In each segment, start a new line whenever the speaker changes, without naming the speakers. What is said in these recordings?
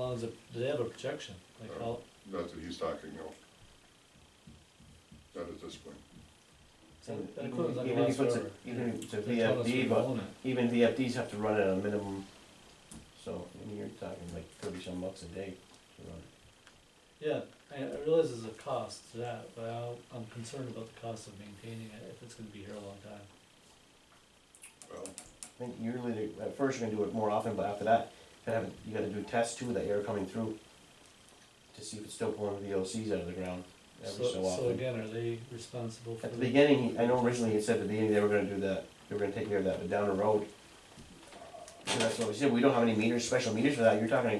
Well, is it, do they have a projection, like
Uh,
how,
That's what he's talking, no. Not at this point.
so
And
that includes like a
even
lot
if it's a-
server.
Even if it's a
They told us we
VFD, but
own it.
even VFDs have to run at a minimum, so I mean, you're talking like thirty some bucks a day to run.
Yeah, I I realize there's a cost to that, but I- I'm concerned about the cost of maintaining it, if it's gonna be here a long time.
Well,
I think yearly, they- at first you're gonna do it more often, but after that, you gotta, have- you gotta do tests too, with the air coming through to see if it's still pulling the VOCs out of the ground every so
So, so
often.
again, are they responsible for
At the
the,
beginning, I know originally it said at the beginning they were gonna do that, they were gonna take care of that, but down the road. So that's what we said, we don't have any meters, special meters for that, you're talking,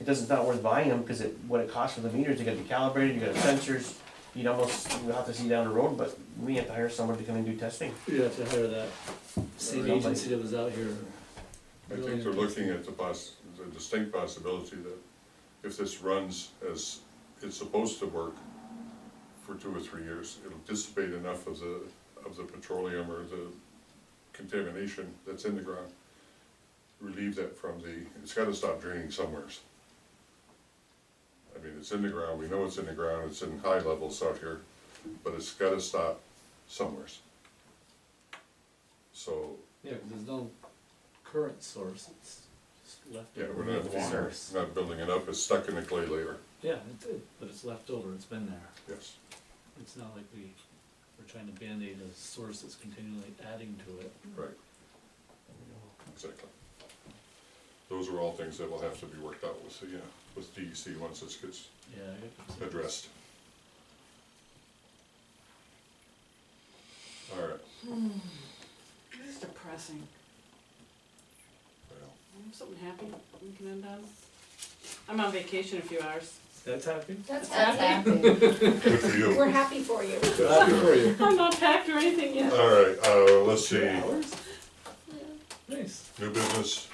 it doesn't, it's not worth buying them, cause it, what it costs for the meters, you gotta be calibrated, you gotta have sensors. You'd almost, you'll have to see down the road, but we have to hire someone to come and do testing.
you have to hire that state
Somebody.
agency that was out here.
I think they're looking at the poss, the distinct possibility that if this runs as it's supposed to work for two or three years, it'll dissipate enough of the, of the petroleum or the contamination that's in the ground. Relieve that from the, it's gotta stop draining somewheres. I mean, it's in the ground, we know it's in the ground, it's in high levels out here, but it's gotta stop somewheres. So,
Yeah, 'cause there's no current source, it's it's left
Yeah,
over.
we're not,
water.
we're not building it up, it's stuck in the clay layer,
Yeah, it did, but it's left over, it's been there.
yes.
It's not like we, we're trying to Band-Aid a source that's continually adding to it.
Right. Exactly. Those are all things that will have to be worked out with, yeah, with DEC once this gets
Yeah. I guess it's-
addressed. All right,
This is depressing.
well,
Something happy we can end on. I'm on vacation a few hours.
That's happy?
That's
That's
happy.
good for you.
We're happy for you.
That's good.
you.
I'm not packed or anything yet.
All right, uh, let's see,
Hours? Nice.
new business,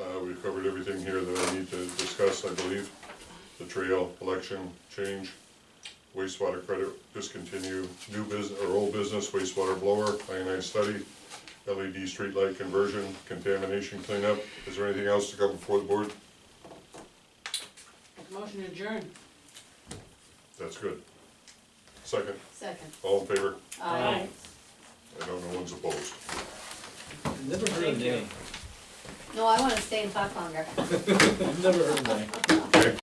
uh, we've covered everything here that I need to discuss, I believe. The trail, election, change, wastewater credit discontinue, new business, or old business wastewater blower, ionized study, LED streetlight conversion, contamination cleanup. Is there anything else to come before the board?
Motion adjourned.
That's good. Second,
Second.
all in favor?
Aye.
I don't know one's opposed.
I've Never heard of
Thank you.
name.
No, I wanna stay and talk longer.
I've never heard of name.
Okay?